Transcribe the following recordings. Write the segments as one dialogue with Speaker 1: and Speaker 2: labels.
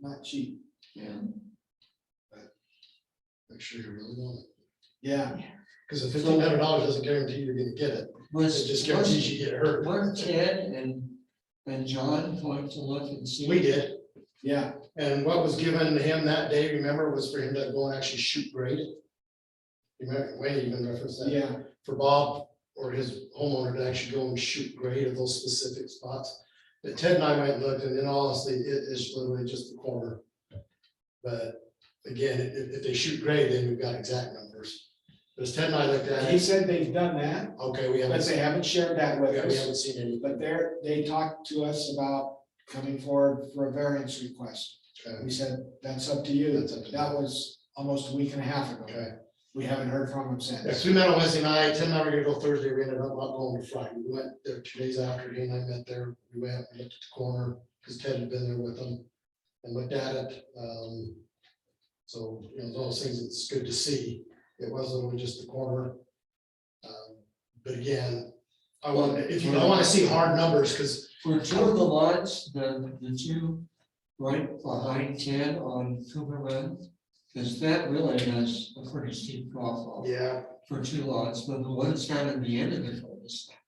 Speaker 1: not cheap.
Speaker 2: Yeah.
Speaker 3: Make sure you really want it,
Speaker 1: Yeah.
Speaker 3: because if fifteen hundred dollars doesn't guarantee you're gonna get it,
Speaker 2: Was,
Speaker 3: it just guarantees
Speaker 2: was,
Speaker 3: you get hurt.
Speaker 2: were Ted and, and John going to look and see?
Speaker 3: We did,
Speaker 1: Yeah,
Speaker 3: and what was given him that day, remember, was for him to go and actually shoot grade. it. Remember, Wayne even referenced that,
Speaker 1: yeah,
Speaker 3: for Bob or his homeowner to actually go and shoot grade at those specific spots. But Ted and I went and looked, and then honestly, it is literally just the corner. But again, if, if they shoot grade, then we've got exact numbers, because Ted and I looked at
Speaker 1: he
Speaker 3: it,
Speaker 1: said they've done that,
Speaker 3: okay, we haven't,
Speaker 1: but they haven't shared that with
Speaker 3: we
Speaker 1: us.
Speaker 3: haven't seen any.
Speaker 1: But they're, they talked to us about coming forward for a variance request.
Speaker 3: Okay.
Speaker 1: We said, that's up to you.
Speaker 3: That's up to you.
Speaker 1: That was almost a week and a half ago.
Speaker 3: Okay,
Speaker 1: We haven't heard from them
Speaker 3: yeah,
Speaker 1: since.
Speaker 3: so we met on Wednesday night, Tim and I were gonna go Thursday, we ended up not going to Friday, we went there two days after, he and I met there, we went, we looked at the corner, because Ted had been there with him. And looked at it, um, so, you know, those things, it's good to see, it wasn't only just the corner. Um, But again, I want, if you, I wanna see hard numbers, because
Speaker 2: For two of the lots, the, the two right behind Ted on Cooper Run, because that really has a pretty steep drop off
Speaker 3: Yeah.
Speaker 2: for two lots, but the ones down at the end of the cul-de-sac,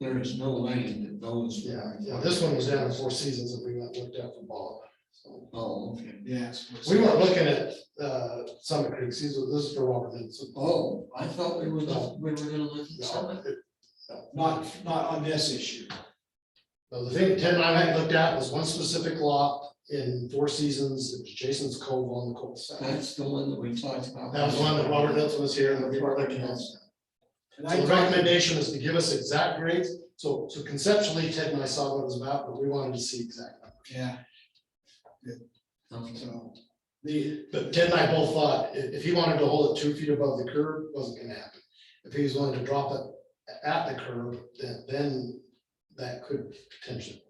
Speaker 2: there is no lane that goes.
Speaker 3: Yeah, yeah, this one was down at Four Seasons, and we went, and looked at the ball, so.
Speaker 2: Oh, okay.
Speaker 1: Yes.
Speaker 3: We weren't looking at, uh, Summit Creek, these are- this is for Robert Nixon.
Speaker 2: Oh, I thought we were, just- we were gonna look at some.
Speaker 3: No, it-
Speaker 1: Not, not on this issue.
Speaker 3: no, the thing Ted and I had looked at was one specific lot in Four Seasons, it was Jason's Cove on the cul-de-sac. That
Speaker 2: That's the one that we talked about.
Speaker 3: was one that Robert Nelson was here and we were looking at. So
Speaker 1: And I
Speaker 3: the
Speaker 1: talked,
Speaker 3: recommendation is to give us exact grades, so, so conceptually Ted and I saw what it was about, but we wanted to see exact. numbers.
Speaker 1: yeah,
Speaker 2: Okay.
Speaker 1: so the,
Speaker 3: But Ted and I both thought, i- if, he wanted to hold it two feet above the curb, wasn't gonna happen. If he was willing to drop it a- at the curb, then, then that could potentially.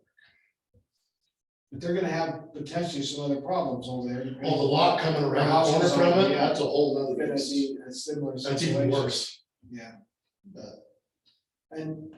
Speaker 1: but they're gonna have potentially some other problems over there.
Speaker 3: Well, the lot coming around the corner from it, that's a whole
Speaker 1: We're
Speaker 3: nother.
Speaker 1: Gonna
Speaker 3: beast.
Speaker 1: see a similar
Speaker 3: That's even
Speaker 1: situation.
Speaker 3: worse.
Speaker 1: Yeah. And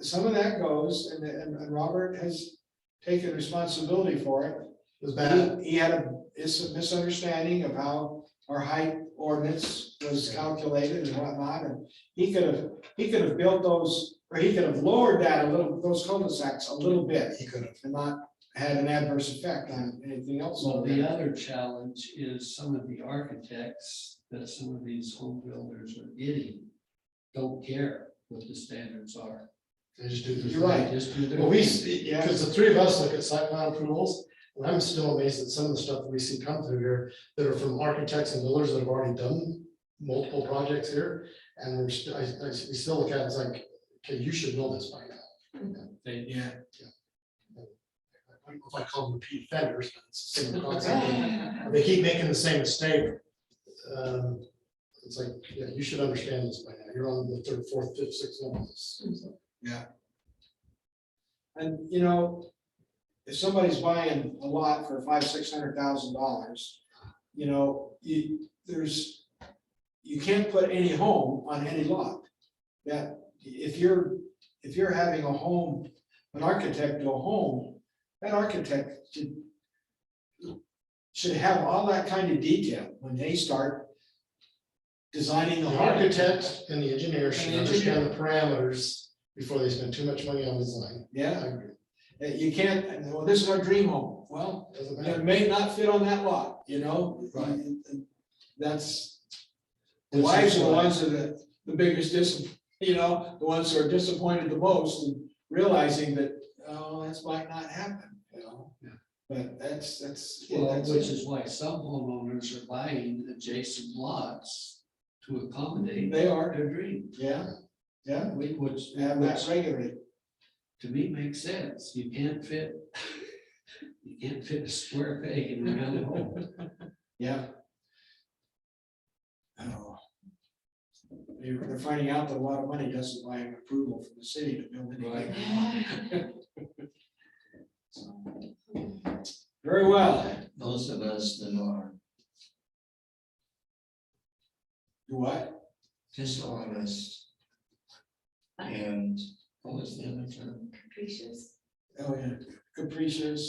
Speaker 1: some of that goes, and, and, and Robert has taken responsibility for it.
Speaker 3: It was bad.
Speaker 1: He, he had a, is a misunderstanding of how our height ordinance was calculated and whatnot, and he could have, he could have built those, or he could have lowered that a little, those cul-de-sacs a little bit
Speaker 3: He could have.
Speaker 1: and not had an adverse effect on anything else.
Speaker 4: Well,
Speaker 1: over there.
Speaker 4: the other challenge is some of the architects that some of these home builders are getting don't care what the standards are.
Speaker 3: They just do their
Speaker 1: You're right.
Speaker 3: thing.
Speaker 4: They just do their.
Speaker 3: Well, we,
Speaker 4: thing.
Speaker 1: Yeah.
Speaker 3: because the three of us look at site plan approvals, and I'm still amazed at some of the stuff we see come through here that are from architects and builders that have already done multiple projects here. And we're, st- I, I, we still look at it, it's like, okay, you should know this by now.
Speaker 4: They,
Speaker 1: Yeah,
Speaker 3: I don't know If I call them repeat offenders, but it's the same concept. They keep making the same mistake. Um, It's like, yeah, you should understand this by now. You're on the third, fourth, fifth, sixth level. It's- it's like,
Speaker 1: and you know, if somebody's buying a lot for five, six hundred thousand dollars, you know, you, there's, you can't put any home on any lot. That, if you're, if you're having a home, an architect do a home, that architect should should have all that kind of detail when they start designing the
Speaker 3: The
Speaker 1: home.
Speaker 3: architect and the engineer should
Speaker 1: And the engineer.
Speaker 3: understand the parameters before they spend too much money on design. I
Speaker 1: Yeah,
Speaker 3: agree.
Speaker 1: you can't, well, this is our dream home. Well,
Speaker 3: Doesn't
Speaker 1: And
Speaker 3: matter.
Speaker 1: It may not fit on that lot, you know?
Speaker 3: Right.
Speaker 1: And- and That's, the wives are the ones that are the biggest dis, you know, the ones who are disappointed the most and realizing that, oh, that's might not happen, you know?
Speaker 4: Yeah.
Speaker 1: But that's, that's.
Speaker 4: well,
Speaker 1: that's-
Speaker 4: which is why some homeowners are buying adjacent lots to accommodate
Speaker 1: They are,
Speaker 4: their dream,
Speaker 1: yeah, yeah,
Speaker 4: we- which,
Speaker 1: and
Speaker 4: which
Speaker 1: that's regulated.
Speaker 4: to me makes sense. You can't fit, you can't fit a square peg in a round hole.
Speaker 1: yeah. Oh. They're they're finding out that a lot of money doesn't buy an approval from the city to build anything. Very well,
Speaker 2: Those of us that are
Speaker 1: you what?
Speaker 2: dishonest. And what was the other term?
Speaker 5: Capricious.
Speaker 1: Oh, yeah, capricious.